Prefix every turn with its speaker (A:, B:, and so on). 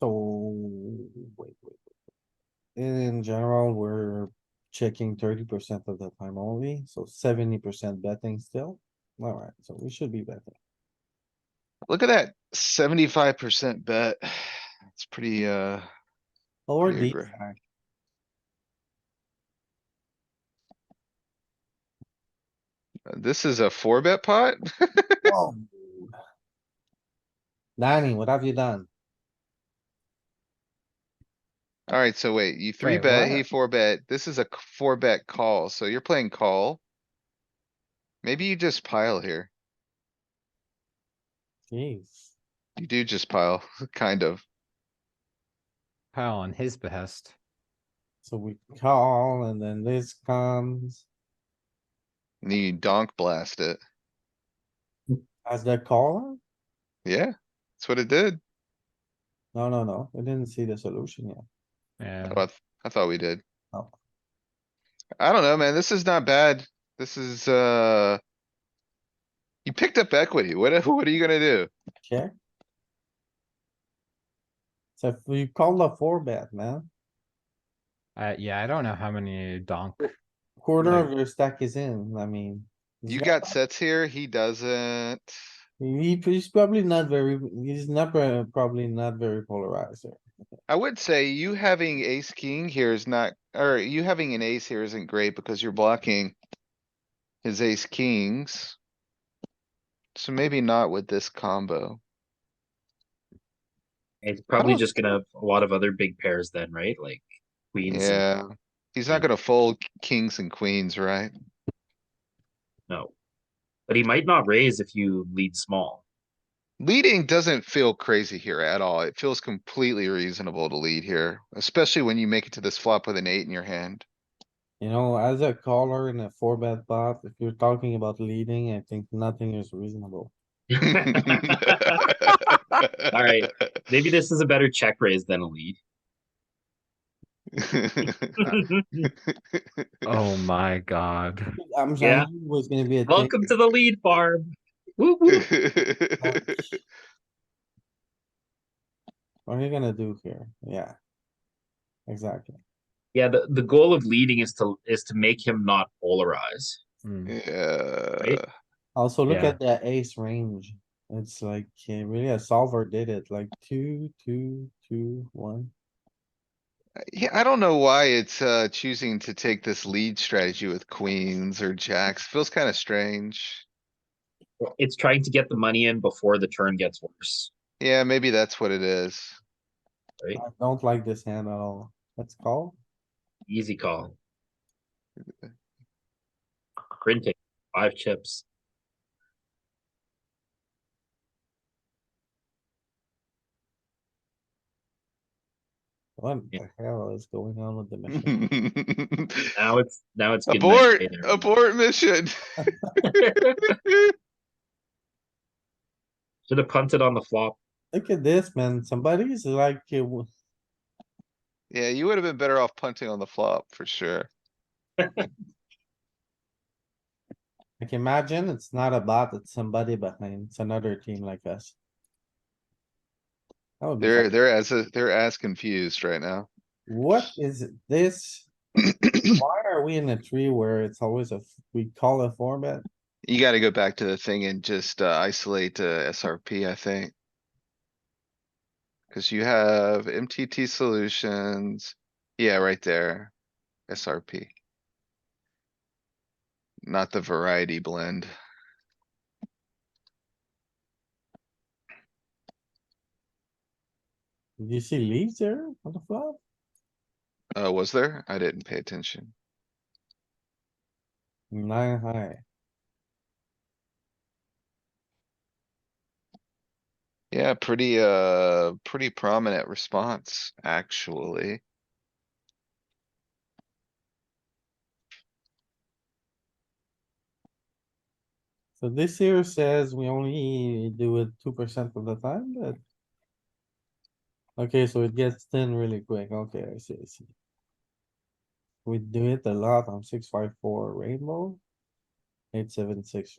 A: So, wait, wait, wait. In general, we're checking thirty percent of the time only, so seventy percent betting still. Alright, so we should be betting.
B: Look at that seventy-five percent bet. It's pretty, uh,
A: Or
B: Pretty
A: deep
B: agree.
A: stack.
B: this is a four bet pot?
A: Danny, what have you done?
B: Alright, so wait, you three
A: Wait,
B: bet, he
A: what?
B: four bet. This is a c- four bet call, so you're playing call. Maybe you just pile here.
A: Jeez.
B: You do just pile, kind of.
C: Pile on his behest.
A: So we call and then this comes
B: And you donk blast it.
A: as the caller?
B: Yeah, that's what it did.
A: No, no, no, I didn't see the solution yet.
C: Yeah,
B: Oh, I, th- I thought we did.
A: Oh.
B: I don't know, man. This is not bad. This is, uh. You picked up equity. What, what are you gonna do?
A: Check. So if we call the four bet, man,
C: uh, yeah, I don't know how many donk.
A: quarter
C: Yeah.
A: of your stack is in, I mean. he's
B: You got sets here. He doesn't.
A: He, he's probably not very, he's not, very- probably not very polarized here.
B: I would say you having ace king here is not, or you having an ace here isn't great because you're blocking. His ace kings. So maybe not with this combo.
D: It's probably
B: don't-
D: just gonna have a lot of other big pairs then, right? Like queens. and-
B: Yeah. He's not
D: Yeah.
B: gonna fold kings and queens, right?
D: No. But he might not raise if you lead small.
B: Leading doesn't feel crazy here at all. It feels completely reasonable to lead here, especially when you make it to this flop with an eight in your hand.
A: You know, as a caller in a four bet pot, if you're talking about leading, I think nothing is reasonable.
B: Alright.
D: Maybe this is a better check raise than a lead.
C: Oh my god.
A: I'm
D: Yeah.
A: sorry, it was gonna be a. thing.
D: Welcome to the lead farm. Woo woo.
A: What are you gonna do here? Yeah. Exactly.
D: Yeah, the, the goal of leading is to is to make him not polarize.
C: Mm.
B: Yeah.
A: Also, look
C: Yeah.
A: at the ace range. It's like, eh, really a solver did it, like two, two, two, one.
B: Yeah, I don't know why it's, uh, choosing to take this lead strategy with queens or jacks. Feels kinda strange.
D: It's trying to get the money in before the turn gets worse.
B: Yeah, maybe that's what it is.
A: I don't like this hand at all. Let's call.
D: Easy call. Printing five chips.
A: What
D: Yeah.
A: the hell is going on with the machine?
B: Abort,
D: Now it's now it's good night, Taylor.
B: abort mission.
D: Should have punted on the flop.
A: Look at this, man. Somebody's like, eh, w-
B: Yeah, you would have been better off punting on the flop for sure.
A: like imagine it's not a bot, it's somebody behind. It's another team like us. That would be
B: They're,
A: fun.
B: they're as, they're as confused right now.
A: What is this? Why are we in a tree where it's always a, f- we call a four bet?
B: You gotta go back to the thing and just uh, isolate uh, SRP, I think. Cause you have MTT solutions. Yeah, right there. SRP. Not the variety blend.
A: Did you see leaves there on the flop?
B: Uh, was there? I didn't pay attention.
A: Nine high.
B: Yeah, pretty, uh, pretty prominent response, actually.
A: So this here says we only do it two percent of the time, but. Okay, so it gets thin really quick. Okay, I see, I see. We do it a lot on six, five, four rainbow. Eight, seven, six